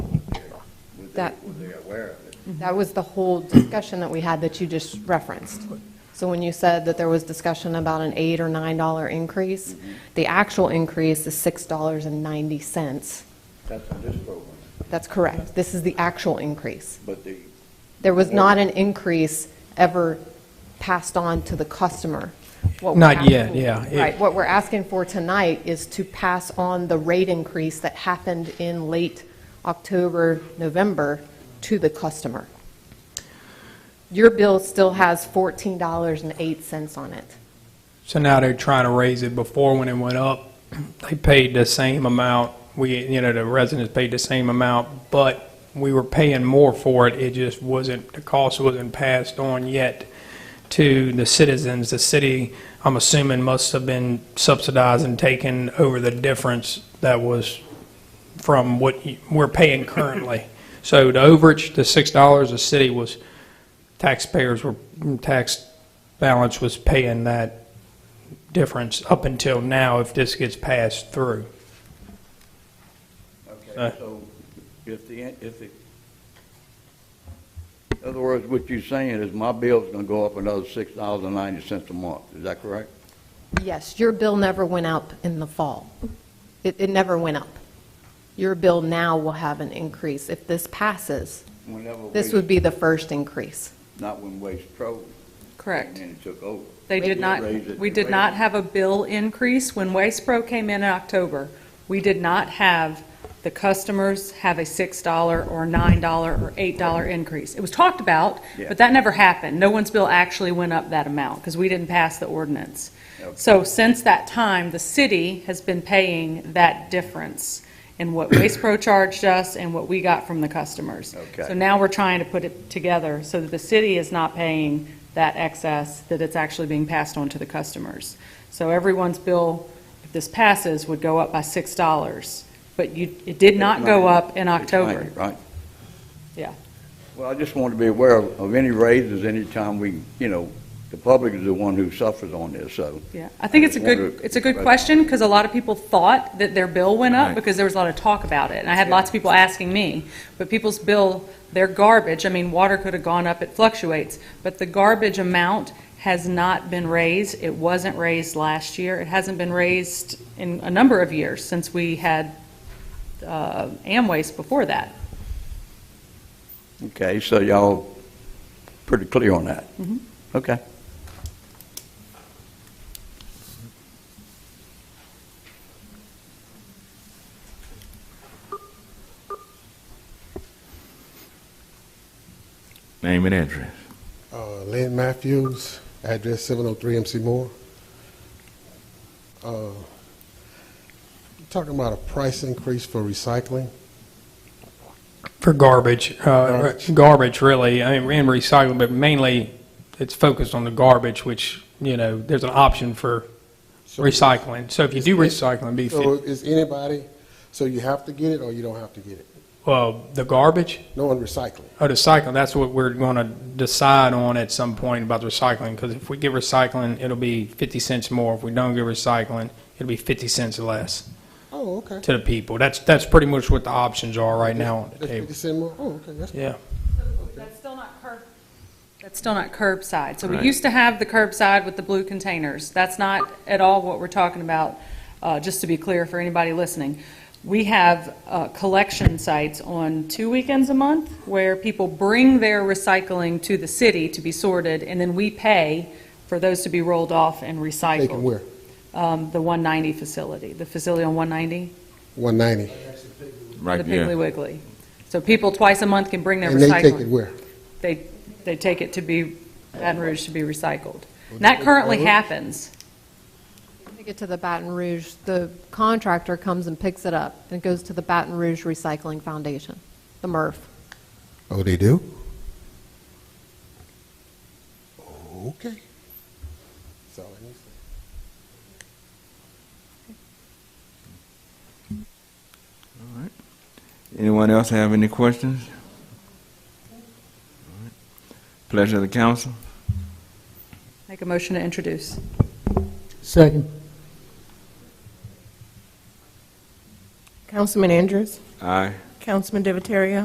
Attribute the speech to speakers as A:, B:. A: That-
B: they, they're aware of it.
A: That was the whole discussion that we had that you just referenced. So when you said that there was discussion about an eight or nine dollar increase, the actual increase is six dollars and ninety cents.
B: That's on this program,
A: That's correct. This is the actual increase.
B: but the,
A: There was not an increase ever passed on to the customer. What we're
C: Not yet,
A: asking-
C: yeah. It-
A: Right, what we're asking for tonight is to pass on the rate increase that happened in late October, November to the customer. Your bill still has $14.08 on it.
C: So now they're trying to raise it. Before, when it went up, they paid the same amount. We, you know, the residents paid the same amount, but we were paying more for it. It just wasn't, the cost wasn't passed on yet to the citizens. The city, I'm assuming, must have been subsidized and taken over the difference that was from what you- we're paying currently. So the overage, the $6, the city was, taxpayers were, tax balance was paying that difference up until now if this gets passed through.
B: okay,
C: Uh.
B: so if the, if the, in other words, what you're saying is my bill's gonna go up another six dollars and ninety cents a month, is that correct?
A: Yes, your bill never went up in the fall. It, it never went up. Your bill now will have an increase. If this passes,
B: Whenever
A: this
B: Waste-
A: would be the first increase.
B: Not when Waste Pro came
D: Correct.
B: in and took over.
D: They did not,
B: raised it
D: we
B: to
D: did
B: raise
D: not
B: it.
D: have a bill increase. When Waste Pro came in in October, we did not have the customers have a $6 or $9 or $8 increase. It was talked about,
B: Yeah.
D: but that never happened. No one's bill actually went up that amount because we didn't pass the ordinance.
B: Okay.
D: So since that time, the city has been paying that difference in what Waste Pro charged us and what we got from the customers.
B: Okay.
D: So now we're trying to put it together so that the city is not paying that excess, that it's actually being passed on to the customers. So everyone's bill, if this passes, would go up by $6, but you, it did not go up in
B: It's ninety,
D: October.
B: Right?
D: Yeah.
B: Well, I just want to be aware of of any raises anytime we, you know, the public is the one who suffers on this, so.
D: Yeah, I think it's a
B: I
D: good,
B: wonder-
D: it's a good question, because a lot of people thought that their bill went
B: Right.
D: up, because there was a lot of talk about it, and I had lots of people asking me, but people's bill, their garbage, I mean, water could have gone up, it fluctuates, but the garbage amount has not been raised, it wasn't raised last year, it hasn't been raised in a number of years, since we had uh, Amways before that.
B: Okay, so y'all pretty clear on that?
D: Mhm.
B: Okay.
E: Name and address.
F: Uh, Lynn Matthews, address 703 MC Moore. Uh, Talking about a price increase for recycling.
C: For garbage, uh,
F: Garbage.
C: garbage really, I mean, and recycling, but mainly it's focused on the garbage, which, you know, there's an option for
F: So-
C: recycling. So if you do recycling, be,
F: So
C: fit-
F: is anybody, so you have to get it or you don't have to get it?
C: well, the garbage,
F: No one recycling.
C: oh, the cycling, that's what we're going to decide on at some point about the recycling. Because if we get recycling, it'll be 50 cents more. If we don't get recycling, it'll be 50 cents less
F: Oh, okay.
C: to the people. That's, that's pretty much what the options are right now on the
F: That's
C: table.
F: 50 cent more? Oh, okay, that's
C: Yeah.
D: That's still not curb. That's still not curbside. So we
E: Right.
D: used to have the curbside with the blue containers. That's not at all what we're talking about, uh, just to be clear for anybody listening. We have uh, collection sites on two weekends a month where people bring their recycling to the city to be sorted, and then we pay for those to be rolled off and
F: taken
D: recycled.
F: where?
D: Um, The 190 facility, the facility on 190,
F: 190.
D: the
E: Right,
D: Piggly
E: yeah.
D: Wiggly. So people twice a month can bring their
F: And they
D: recycling
F: take it where?
D: they, they take it to be, Baton Rouge to be recycled. And that currently happens.
A: Take it to the Baton Rouge, the contractor comes and picks it up, and it goes to the Baton Rouge Recycling Foundation, the MRF.
F: Oh, they do? Okay. That's all I need to say.
E: Anyone else have any questions? All right. Pleasure of the council.
D: Make a motion to introduce.
G: Second.
H: Councilman Andrews,
E: Aye.
H: Councilman Divatario.